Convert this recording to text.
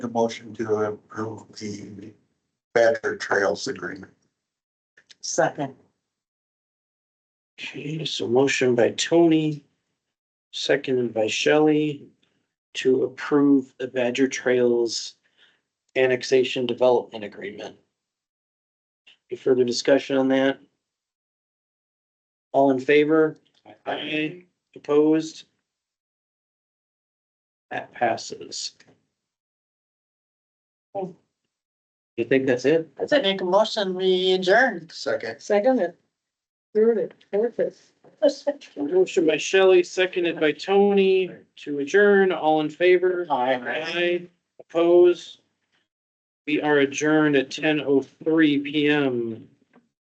a motion to approve the Badger Trails Agreement. Second, Okay, so motion by Tony, seconded by Shelley to approve the Badger Trails Annexation Development Agreement. Any further discussion on that? All in favor? Aye. Opposed? That passes. You think that's it? I make a motion, we adjourn. Second. Second it. Third it, fourth it. Motion by Shelley, seconded by Tony to adjourn. All in favor? Aye. Oppose? We are adjourned at ten oh three PM.